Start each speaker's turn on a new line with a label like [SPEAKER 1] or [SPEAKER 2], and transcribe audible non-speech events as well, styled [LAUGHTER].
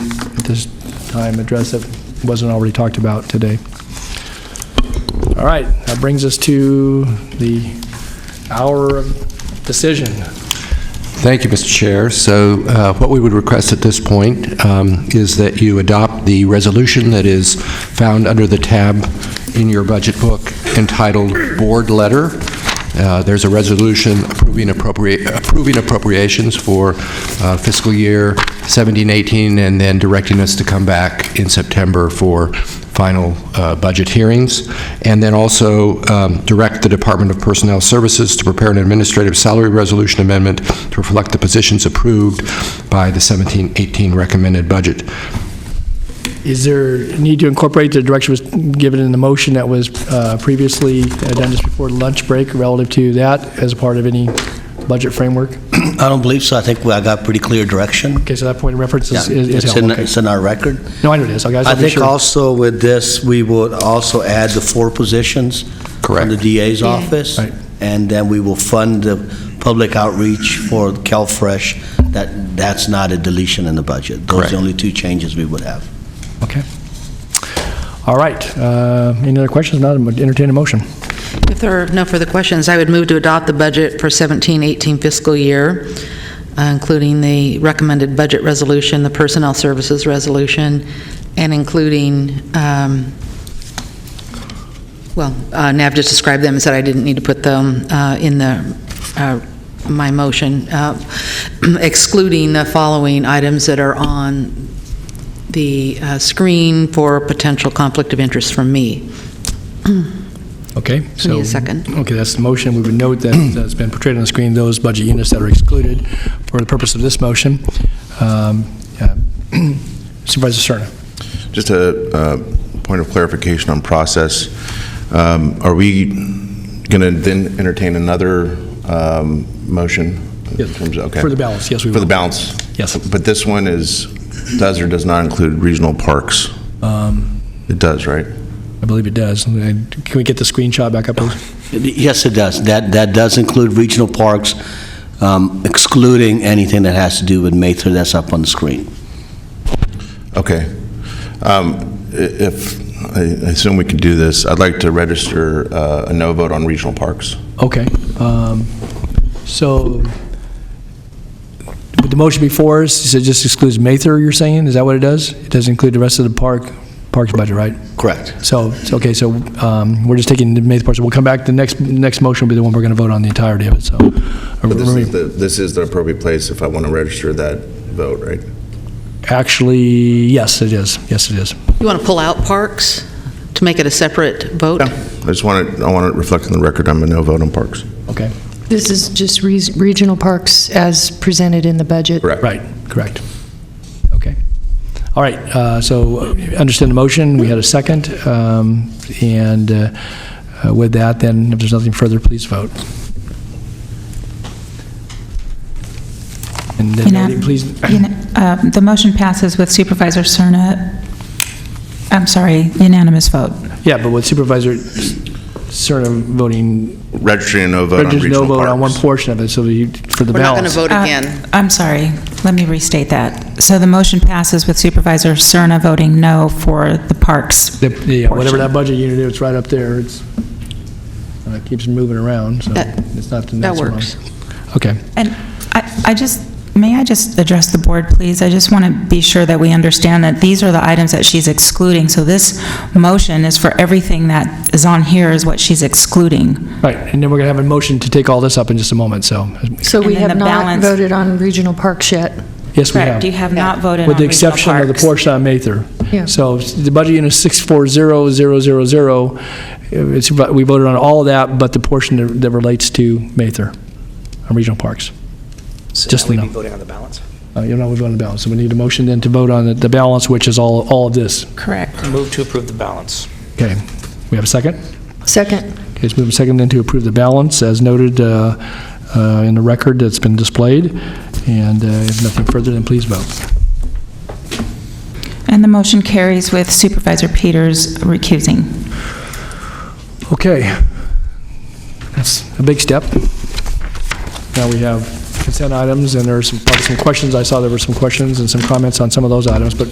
[SPEAKER 1] at this time address that wasn't already talked about today. All right, that brings us to the hour of decision.
[SPEAKER 2] Thank you, Mr. Chair. So uh, what we would request at this point um, is that you adopt the resolution that is found under the tab in your budget book entitled Board Letter. Uh, There's a resolution approving appropriate, approving appropriations for uh, fiscal year 1718 and then directing us to come back in September for final uh, budget hearings, and then also um, direct the Department of Personnel Services to prepare an administrative salary resolution amendment to reflect the positions approved by the 1718 recommended budget.
[SPEAKER 1] Is there need to incorporate the direction was given in the motion that was uh, previously done just before lunch break relative to that as a part of any budget framework?
[SPEAKER 3] I don't believe so. I think I got pretty clear direction.
[SPEAKER 1] Okay, so that point of reference
[SPEAKER 3] Yeah,
[SPEAKER 1] is- is is
[SPEAKER 3] It's in,
[SPEAKER 1] held, okay.
[SPEAKER 3] it's in our record.
[SPEAKER 1] No, I know it is, okay, I
[SPEAKER 3] I
[SPEAKER 1] just wanted
[SPEAKER 3] think
[SPEAKER 1] to be sure.
[SPEAKER 3] also with this, we would also add the four positions.
[SPEAKER 2] Correct.
[SPEAKER 3] From the DA's office.
[SPEAKER 1] Right.
[SPEAKER 3] And then we will fund the public outreach for CalFresh. That, that's not a deletion in the budget. Those are
[SPEAKER 2] Correct.
[SPEAKER 3] the only two changes we would have.
[SPEAKER 1] Okay. All right, uh, any other questions? Not, entertain a motion.
[SPEAKER 4] If there are no further questions, I would move to adopt the budget for 17-18 fiscal year, uh, including the recommended budget resolution, the personnel services resolution, and including, um, well, uh, Nav just described them and said I didn't need to put them uh, in the, uh, my motion, uh, [CLEARS THROAT] excluding the following items that are on the uh, screen for potential conflict of interest from me.
[SPEAKER 1] Okay,
[SPEAKER 4] I
[SPEAKER 1] so.
[SPEAKER 4] Need a second?
[SPEAKER 1] Okay, that's the motion. We would note that uh, it's been portrayed on the screen, those budget units that are excluded for the purpose of this motion. Um, uh, [CLEARS THROAT] Supervisor Serna.
[SPEAKER 5] Just a uh, point of clarification on process. Um, Are we going to then entertain another um, motion? in
[SPEAKER 1] Yes.
[SPEAKER 5] terms of- okay.
[SPEAKER 1] For the balance, yes, we
[SPEAKER 5] For the
[SPEAKER 1] will.
[SPEAKER 5] balance?
[SPEAKER 1] Yes.
[SPEAKER 5] But this one is, does or does not include regional parks?
[SPEAKER 1] Um,
[SPEAKER 5] It does, right?
[SPEAKER 1] I believe it does. Can we get the screenshot back up, please?
[SPEAKER 3] Yes, it does. That, that does include regional parks, um, excluding anything that has to do with Mather that's up on the screen.
[SPEAKER 5] Okay. Um, i- If, I I assume we can do this, I'd like to register uh, a no vote on regional parks.
[SPEAKER 1] Okay. um, So, with the motion before us, it just excludes Mather, you're saying? Is that what it does? It doesn't include the rest of the park, parks budget, right?
[SPEAKER 3] Correct.
[SPEAKER 1] So, so- okay, so um, we're just taking the Mather portion. We'll come back, the next, next motion will be the one we're going to vote on the entirety of it, so.
[SPEAKER 5] This is the- This is the appropriate place if I want to register that vote, right?
[SPEAKER 1] Actually, yes, it is. Yes, it is.
[SPEAKER 4] You want to pull out parks to make it a separate vote?
[SPEAKER 5] Yeah, I just want it, I want it reflected in the record, I'm a no vote on parks.
[SPEAKER 1] Okay.
[SPEAKER 6] This is just re- regional parks as presented in the budget.
[SPEAKER 5] Correct.
[SPEAKER 1] Right, correct. Okay. All right, uh, so uh, understand the motion, we had a second, um, and uh, uh, with that, then, if there's nothing further, please vote. And then,
[SPEAKER 7] Unan-
[SPEAKER 1] please,
[SPEAKER 7] Una- uh, The motion passes with Supervisor Cerna, I'm sorry, unanimous vote.
[SPEAKER 1] yeah, but with Supervisor Cerna voting,
[SPEAKER 5] Registering a no vote on
[SPEAKER 1] there's no
[SPEAKER 5] regional
[SPEAKER 1] vote on one
[SPEAKER 5] parks.
[SPEAKER 1] portion of it, so you- for the
[SPEAKER 4] We're not going
[SPEAKER 1] balance.
[SPEAKER 4] to vote
[SPEAKER 7] Uh,
[SPEAKER 4] again.
[SPEAKER 7] I'm sorry, let me restate that. So the motion passes with Supervisor Cerna voting no for the parks.
[SPEAKER 1] The- Yeah, whatever
[SPEAKER 7] Portion.
[SPEAKER 1] that budget unit is, it's right up there, it's, and it keeps moving around, so
[SPEAKER 4] That-
[SPEAKER 1] it's not the
[SPEAKER 4] That
[SPEAKER 1] next one.
[SPEAKER 4] works.
[SPEAKER 1] Okay.
[SPEAKER 7] And I I just, may I just address the board, please? I just want to be sure that we understand that these are the items that she's excluding. So this motion is for everything that is on here is what she's excluding.
[SPEAKER 1] Right, and then we're going to have a motion to take all this up in just a moment, so,
[SPEAKER 6] So we
[SPEAKER 7] And then
[SPEAKER 6] have
[SPEAKER 7] the
[SPEAKER 6] not
[SPEAKER 7] balance-
[SPEAKER 6] voted on regional parks yet.
[SPEAKER 1] yes, we have.
[SPEAKER 7] Correct, you have not voted on
[SPEAKER 1] With the
[SPEAKER 7] regional
[SPEAKER 1] exception of the
[SPEAKER 7] parks.
[SPEAKER 1] portion on Mather.
[SPEAKER 6] Yeah.
[SPEAKER 1] So the budget unit is 640000, it's, about- we voted on all of that, but the portion that- that relates to Mather, on regional parks. Just
[SPEAKER 8] Would
[SPEAKER 1] Lino.
[SPEAKER 8] be voting on the balance?
[SPEAKER 1] Uh, You know, we voted on the balance, so we need a motion then to vote on the- the balance, which is all, all of this.
[SPEAKER 7] Correct.
[SPEAKER 8] Move to approve the balance.
[SPEAKER 1] Okay, we have a second?
[SPEAKER 6] Second,
[SPEAKER 1] Okay, it's moved and seconded then to approve the balance as noted uh, uh, in the record that's been displayed, and uh, if nothing further, then please vote.
[SPEAKER 7] And the motion carries with Supervisor Peters recusing.
[SPEAKER 1] Okay. That's a big step. Now we have consent items, and there are some, probably some questions. I saw there were some questions and some comments on some of those items, but